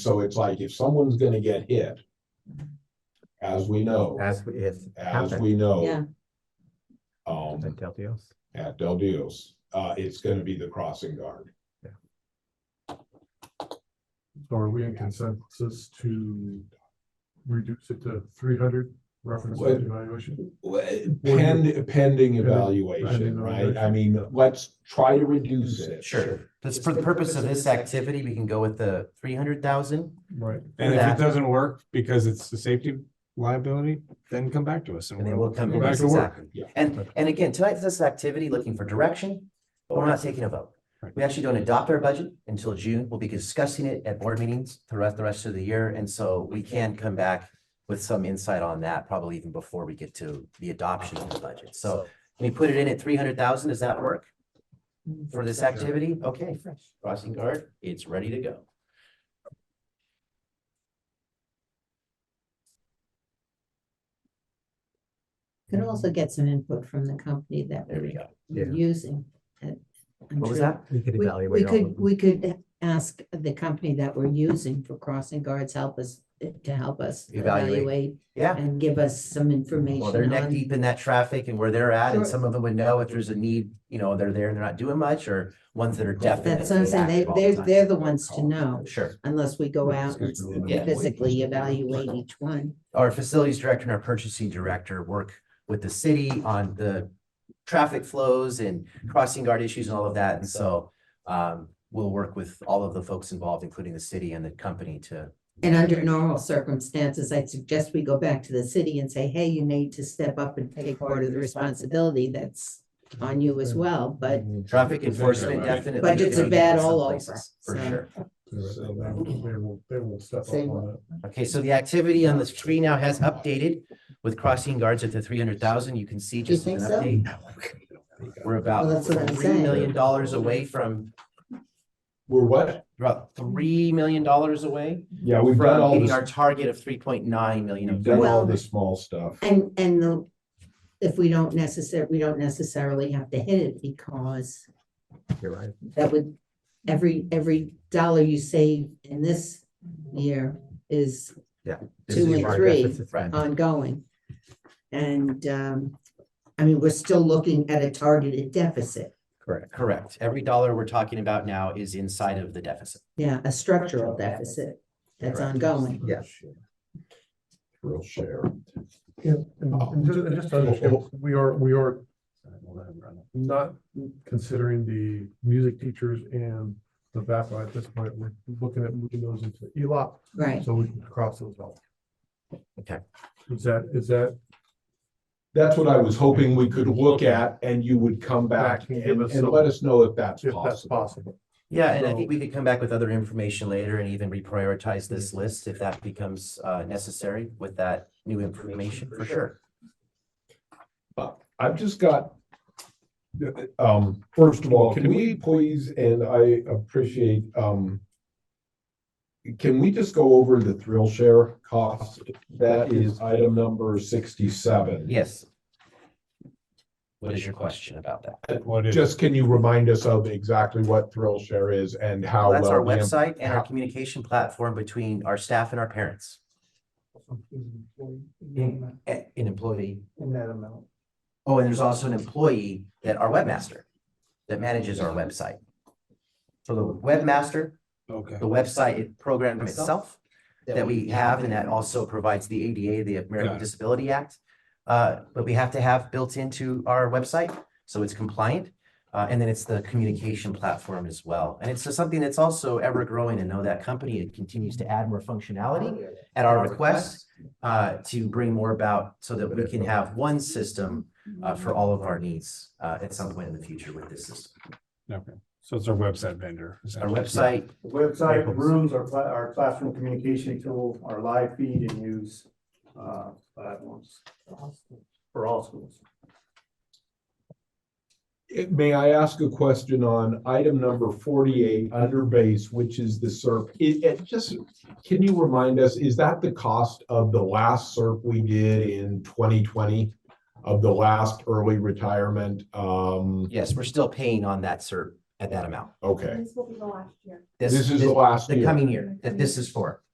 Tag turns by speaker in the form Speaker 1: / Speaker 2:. Speaker 1: So it's like if someone's gonna get hit. As we know,
Speaker 2: As we- if
Speaker 1: Oh, as
Speaker 2: happened,
Speaker 1: we
Speaker 3: Yeah.
Speaker 1: know. Um,
Speaker 2: then tell the else.
Speaker 1: at Del Dios, uh, it's gonna be the crossing guard.
Speaker 4: So Are we in consensus to reduce it to three hundred reference
Speaker 1: Well-
Speaker 4: evaluation?
Speaker 5: eh,
Speaker 1: Pend, pending evaluation, right? I mean, let's try to reduce it.
Speaker 5: Sure, that's for the purpose of this activity, we can go with the three hundred thousand.
Speaker 4: Right.
Speaker 6: And if
Speaker 5: that.
Speaker 6: it doesn't work because it's a safety liability, then come back to us and
Speaker 5: And then we'll come to
Speaker 6: go back
Speaker 5: this
Speaker 6: to work.
Speaker 5: exactly.
Speaker 1: Yeah.
Speaker 5: And, and again, tonight's this activity looking for direction, but we're not taking a vote.
Speaker 6: Right.
Speaker 5: We actually don't adopt our budget until June. We'll be discussing it at board meetings throughout the rest of the year. And so we can come back with some insight on that, probably even before we get to the adoption of the budget. So we put it in at three hundred thousand. Does that work? For this activity? Okay, crossing guard, it's ready to go.
Speaker 3: Could also get some input from the company that
Speaker 5: There we
Speaker 3: we're
Speaker 5: go.
Speaker 2: Yeah.
Speaker 3: using. and I'm
Speaker 5: What was
Speaker 3: sure-
Speaker 5: that?
Speaker 2: We could
Speaker 3: We, we
Speaker 2: evaluate all
Speaker 3: could,
Speaker 2: of them.
Speaker 3: we could ask the company that we're using for crossing guards, help us, eh, to help us
Speaker 5: Evaluate.
Speaker 3: evaluate
Speaker 5: Yeah.
Speaker 3: and give us some information
Speaker 5: Well, they're neck
Speaker 3: on.
Speaker 5: deep in that traffic and where they're at, and
Speaker 3: Sure.
Speaker 5: some of them would know if there's a need, you know, they're there and they're not doing much, or ones that are definitely.
Speaker 3: That's what I'm saying, they,
Speaker 5: active all the
Speaker 3: they're,
Speaker 5: time.
Speaker 3: they're the ones to know,
Speaker 5: Sure,
Speaker 3: unless we go out and
Speaker 5: Yeah.
Speaker 3: physically evaluate each one.
Speaker 5: our facilities director and our purchasing director work with the city on the traffic flows and crossing guard issues and all of that, and so um, we'll work with all of the folks involved, including the city and the company to,
Speaker 3: And under normal circumstances, I suggest we go back to the city and say, hey, you need to step up and take part of the responsibility that's on you as well, but
Speaker 5: traffic enforcement
Speaker 1: Right.
Speaker 5: definitely.
Speaker 3: Budgets are
Speaker 5: could be
Speaker 3: bad
Speaker 5: some
Speaker 3: all
Speaker 5: places, For
Speaker 3: over, so-
Speaker 5: sure.
Speaker 4: So They will, they will step up on it.
Speaker 5: Okay, so the activity on the screen now has updated with crossing guards at the three hundred thousand. You can see
Speaker 3: Do you
Speaker 5: just an
Speaker 3: think so?
Speaker 5: update. We're
Speaker 3: Well,
Speaker 5: about
Speaker 3: that's what I'm
Speaker 5: three
Speaker 3: saying.
Speaker 5: million dollars away from,
Speaker 1: We're what?
Speaker 5: about three million dollars away
Speaker 1: Yeah, we've done
Speaker 5: from
Speaker 1: all
Speaker 5: hitting
Speaker 1: this,
Speaker 5: our target of three point nine million.
Speaker 1: we've done all
Speaker 3: Well-
Speaker 1: the small stuff.
Speaker 3: And, and the, if we don't necessarily, we don't necessarily have to hit it because
Speaker 2: You're right.
Speaker 3: that would, every, every dollar you save in this year is
Speaker 2: This
Speaker 3: Two
Speaker 2: is
Speaker 3: and
Speaker 2: our
Speaker 3: three.
Speaker 2: deficit.
Speaker 5: Right.
Speaker 3: ongoing. And, um, I mean, we're still looking at a targeted deficit,
Speaker 2: Correct.
Speaker 5: Correct. Every dollar we're talking about now is inside of the deficit.
Speaker 3: yeah, a structural deficit that's
Speaker 5: Correct.
Speaker 3: ongoing.
Speaker 2: Yeah.
Speaker 1: Real share.
Speaker 4: Yeah, and and just, and just to understand, we are, we are not considering the music teachers and the VAPA at this point. We're looking at moving those into E ELOP,
Speaker 3: Right,
Speaker 4: so we can cross those out.
Speaker 5: Okay.
Speaker 4: Is that, is that,
Speaker 1: That's what I was hoping we could look at and you would come back
Speaker 4: Back and
Speaker 1: and,
Speaker 4: give us
Speaker 1: and
Speaker 4: some-
Speaker 1: let us know if that's
Speaker 4: if that's
Speaker 1: possible.
Speaker 4: possible?
Speaker 5: Yeah, and I
Speaker 4: So-
Speaker 5: think we could come back with other information later and even reprioritize this list if that becomes uh necessary with that new information, for sure.
Speaker 1: I've just got. Um, first of all,
Speaker 6: Can
Speaker 1: can we
Speaker 6: we-
Speaker 1: please, and I appreciate, um. Can we just go over the thrill share cost? That is item number sixty-seven.
Speaker 5: Yes. What is your question about that?
Speaker 6: What is,
Speaker 1: Just can you remind us of exactly what thrill share is and how?
Speaker 5: Well, That's
Speaker 1: well
Speaker 5: our
Speaker 1: the imp-
Speaker 5: website and
Speaker 1: how-
Speaker 5: our communication platform between our staff and our parents. In- eh, An employee.
Speaker 7: in that amount.
Speaker 5: Oh, and there's also an employee that our webmaster that manages our website. So the webmaster,
Speaker 6: okay.
Speaker 5: the website program itself that we have, and that also provides the ADA, the American
Speaker 6: Got it.
Speaker 5: Disability Act. Uh, but we have to have built into our website, so it's compliant. Uh, and then it's the communication platform as well. And it's just something that's also ever growing and know that company, it continues to add more functionality at our request uh, to bring more about so that we can have one system uh, for all of our needs uh, at some point in the future with this system.
Speaker 6: Okay. So it's our website vendor.
Speaker 5: Our
Speaker 6: essentially.
Speaker 5: website,
Speaker 7: The Website, the rooms, our, pla- our classroom communication tool, our live feed and news, uh, platforms. For all schools.
Speaker 1: Eh, May I ask a question on item number forty-eight under base, which is the SERP? It, it just, can you remind us, is that the cost of the last SERP we did in twenty twenty? Of the last early retirement, um,
Speaker 5: yes, we're still paying on that cert at that amount.
Speaker 1: Okay,
Speaker 8: This will be the last year.
Speaker 1: this is the last
Speaker 5: The
Speaker 1: year.
Speaker 5: coming year that this is for.